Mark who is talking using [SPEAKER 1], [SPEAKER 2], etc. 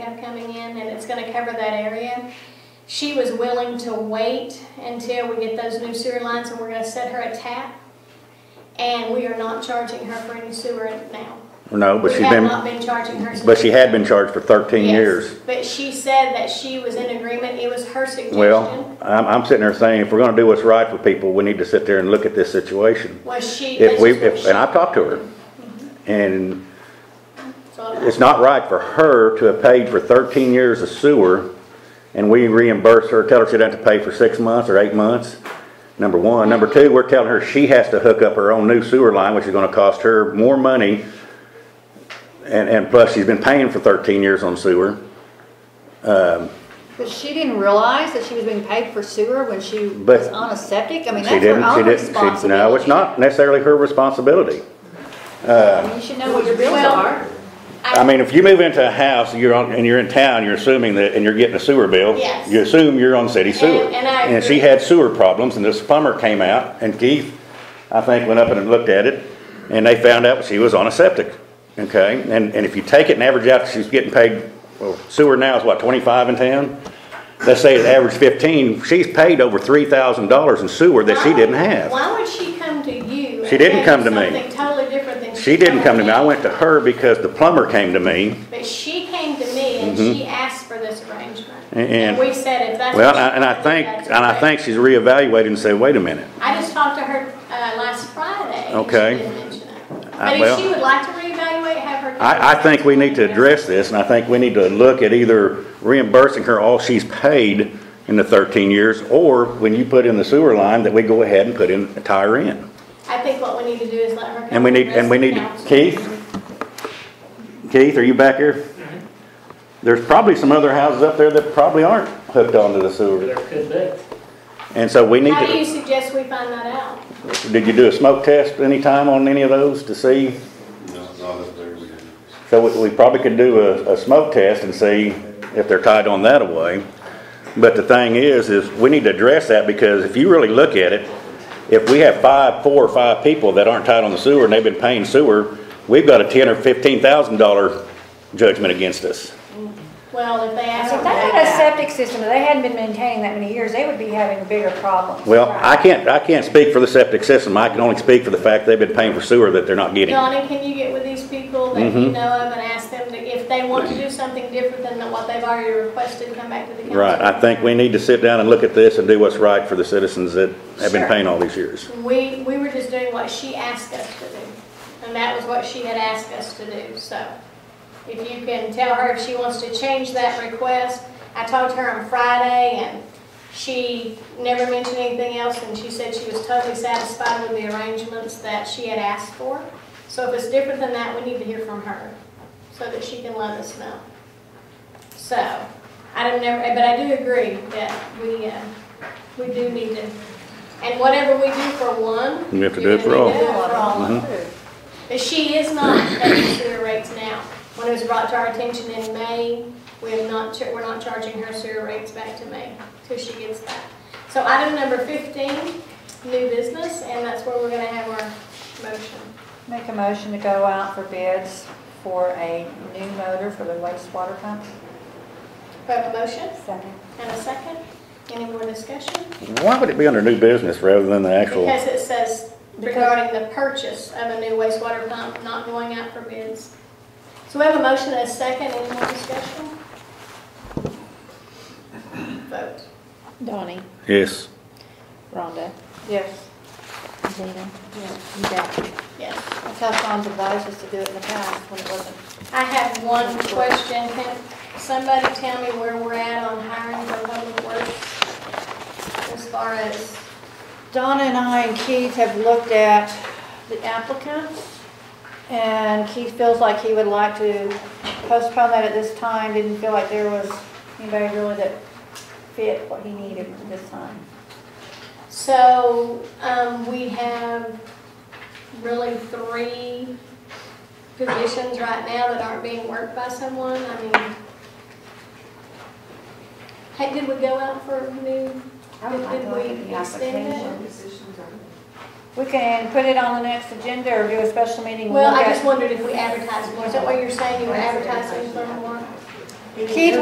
[SPEAKER 1] have coming in, and it's gonna cover that area. She was willing to wait until we get those new sewer lines, and we're gonna set her a tap. And we are not charging her for any sewer now.
[SPEAKER 2] No, but
[SPEAKER 1] We
[SPEAKER 2] she's
[SPEAKER 1] have
[SPEAKER 2] been,
[SPEAKER 1] not been charging her. since-
[SPEAKER 2] but she had been charged for thirteen
[SPEAKER 1] Yes,
[SPEAKER 2] years.
[SPEAKER 1] But she said that she was in agreement, it was her suggestion.
[SPEAKER 2] Well, I'm, I'm sitting there saying, if we're gonna do what's right for people, we need to sit there and look at this situation.
[SPEAKER 1] Was she?
[SPEAKER 2] If we,
[SPEAKER 1] that's just what
[SPEAKER 2] if, and I've talked to her, and
[SPEAKER 1] she thought.
[SPEAKER 2] it's not right for her to have paid for thirteen years of sewer, and we reimburse her, tell her she doesn't have to pay for six months or eight months, number one. Number two, we're telling her she has to hook up her own new sewer line, which is gonna cost her more money, and, and plus, she's been paying for thirteen years on sewer.
[SPEAKER 3] But she didn't realize that she was being paid for sewer when she
[SPEAKER 2] But-
[SPEAKER 3] was on a septic? I mean,
[SPEAKER 2] She
[SPEAKER 3] that's her
[SPEAKER 2] didn't, she didn't,
[SPEAKER 3] own
[SPEAKER 2] she, no, it's
[SPEAKER 3] responsibility.
[SPEAKER 2] not necessarily her responsibility.
[SPEAKER 3] I mean, you should know what your bills
[SPEAKER 1] Well-
[SPEAKER 3] are.
[SPEAKER 2] I mean, if you move into a house, you're on, and you're in town, you're assuming that, and you're getting a sewer bill.
[SPEAKER 1] Yes.
[SPEAKER 2] You assume you're on city sewer.
[SPEAKER 1] And- and I
[SPEAKER 2] And she
[SPEAKER 1] agree.
[SPEAKER 2] had sewer problems, and this plumber came out, and Keith, I think, went up and looked at it, and they found out she was on a septic, okay? And, and if you take it and average out, she's getting paid, well, sewer now is what, twenty-five in town? Let's say it averaged fifteen, she's paid over three thousand dollars in sewer that she
[SPEAKER 1] Why-
[SPEAKER 2] didn't have.
[SPEAKER 1] Why would she come to you? and
[SPEAKER 2] She didn't
[SPEAKER 1] tell you
[SPEAKER 2] come to me.
[SPEAKER 1] Something totally different than.
[SPEAKER 2] She didn't come to me, I went to her because the plumber came to me.
[SPEAKER 1] But she came to me and she asked for this arrangement.
[SPEAKER 2] Mm-hmm. And-
[SPEAKER 1] And we said if that's.
[SPEAKER 2] Well,
[SPEAKER 1] what she
[SPEAKER 2] and I- and I
[SPEAKER 1] wanted,
[SPEAKER 2] think,
[SPEAKER 1] that's
[SPEAKER 2] and I
[SPEAKER 1] okay.
[SPEAKER 2] think she's reevaluating and said, wait a minute.
[SPEAKER 1] I just talked to her, uh, last Friday. and she
[SPEAKER 2] Okay.
[SPEAKER 1] didn't mention it.
[SPEAKER 2] I-
[SPEAKER 1] But
[SPEAKER 2] well-
[SPEAKER 1] if she would like to reevaluate, have her.
[SPEAKER 2] I, I think we need to address this, and I think we need to look at either reimbursing her all she's paid in the thirteen years, or when you put in the sewer line, that we go ahead and put in, tie her in.
[SPEAKER 1] I think what we need to do is let her. come
[SPEAKER 2] And we
[SPEAKER 1] to the
[SPEAKER 2] need, and we need,
[SPEAKER 1] rest of the
[SPEAKER 2] Keith?
[SPEAKER 1] council.
[SPEAKER 2] Keith, are you back here? There's probably some other houses up there that probably aren't hooked onto the sewer,
[SPEAKER 4] There could be.
[SPEAKER 2] and so we need
[SPEAKER 1] How do you
[SPEAKER 2] to,
[SPEAKER 1] suggest we find that out?
[SPEAKER 2] did you do a smoke test any time on any of those to see?
[SPEAKER 5] No, not up there, we didn't.
[SPEAKER 2] So we, we probably could do a, a smoke test and see if they're tied on that away. But the thing is, is we need to address that because if you really look at it, if we have five, four or five people that aren't tied on the sewer and they've been paying sewer, we've got a ten or fifteen thousand dollar judgment against us.
[SPEAKER 1] Well, if they ask.
[SPEAKER 6] If
[SPEAKER 1] her
[SPEAKER 6] they
[SPEAKER 1] to do
[SPEAKER 6] had a
[SPEAKER 1] that-
[SPEAKER 6] septic system, if they hadn't been maintaining that many years, they would be having bigger problems.
[SPEAKER 2] Well, I can't, I can't speak for the septic system. I can only speak for the fact they've been paying for sewer that they're not getting.
[SPEAKER 1] Donnie, can you get with these people that
[SPEAKER 2] Mm-hmm.
[SPEAKER 1] you know of and ask them to- if they want to do something different than what they've already requested, come back to the council?
[SPEAKER 2] Right, I think we need to sit down and look at this and do what's right for the citizens that have been
[SPEAKER 1] Sure.
[SPEAKER 2] paying all these years.
[SPEAKER 1] We, we were just doing what she asked us to do, and that was what she had asked us to do, so. If you can tell her if she wants to change that request, I talked to her on Friday, and she never mentioned anything else, and she said she was totally satisfied with the arrangements that she had asked for. So if it's different than that, we need to hear from her, so that she can let us know. So, I don't never, but I do agree that we, uh, we do need to, and whatever we do for one.
[SPEAKER 2] You have to
[SPEAKER 1] you're
[SPEAKER 2] do it for
[SPEAKER 1] gonna
[SPEAKER 2] all.
[SPEAKER 1] need to do it for
[SPEAKER 2] Mm-hmm.
[SPEAKER 1] all. But she is not paying sewer rates now. When it was brought to our attention in May, we have not, cha- we're not charging her sewer rates back to May till she gets that. So item number fifteen, new business, and that's where we're gonna have our motion.
[SPEAKER 6] Make a motion to go out for bids for a new motor for the wastewater pump.
[SPEAKER 1] We have a motion
[SPEAKER 6] Second.
[SPEAKER 1] and a second. Any more discussion?
[SPEAKER 2] Why would it be under new business rather than the actual?
[SPEAKER 1] Because it says regarding the purchase of a new wastewater pump not going out for bids. So we have a motion and a second, any more discussion? Vote.
[SPEAKER 7] Donnie,
[SPEAKER 2] Yes.
[SPEAKER 7] Rhonda,
[SPEAKER 3] Yes.
[SPEAKER 7] Gina,
[SPEAKER 3] Yeah.
[SPEAKER 7] Becky.
[SPEAKER 1] Yes.
[SPEAKER 3] That's how Sean's advised us to do it in the past when it wasn't.
[SPEAKER 1] I have one question. Can somebody tell me where we're at on hiring for public works? As far as,
[SPEAKER 3] Donna and I and Keith have looked at the applicants, and Keith feels like he would like to postpone that at this time, didn't feel like there was anybody really that fit what he needed at this time.
[SPEAKER 1] so, um, we have really three positions right now that aren't being worked by someone. I mean, hey, did we go out for new,
[SPEAKER 3] I would like to look at
[SPEAKER 1] did
[SPEAKER 3] the
[SPEAKER 1] we extend it?
[SPEAKER 3] application. We can put it on the next agenda or do a special meeting. and
[SPEAKER 1] Well,
[SPEAKER 3] look
[SPEAKER 1] I
[SPEAKER 3] at-
[SPEAKER 1] just wondered if we advertised more. Is that what you're saying? You were advertising for more?
[SPEAKER 7] Keith,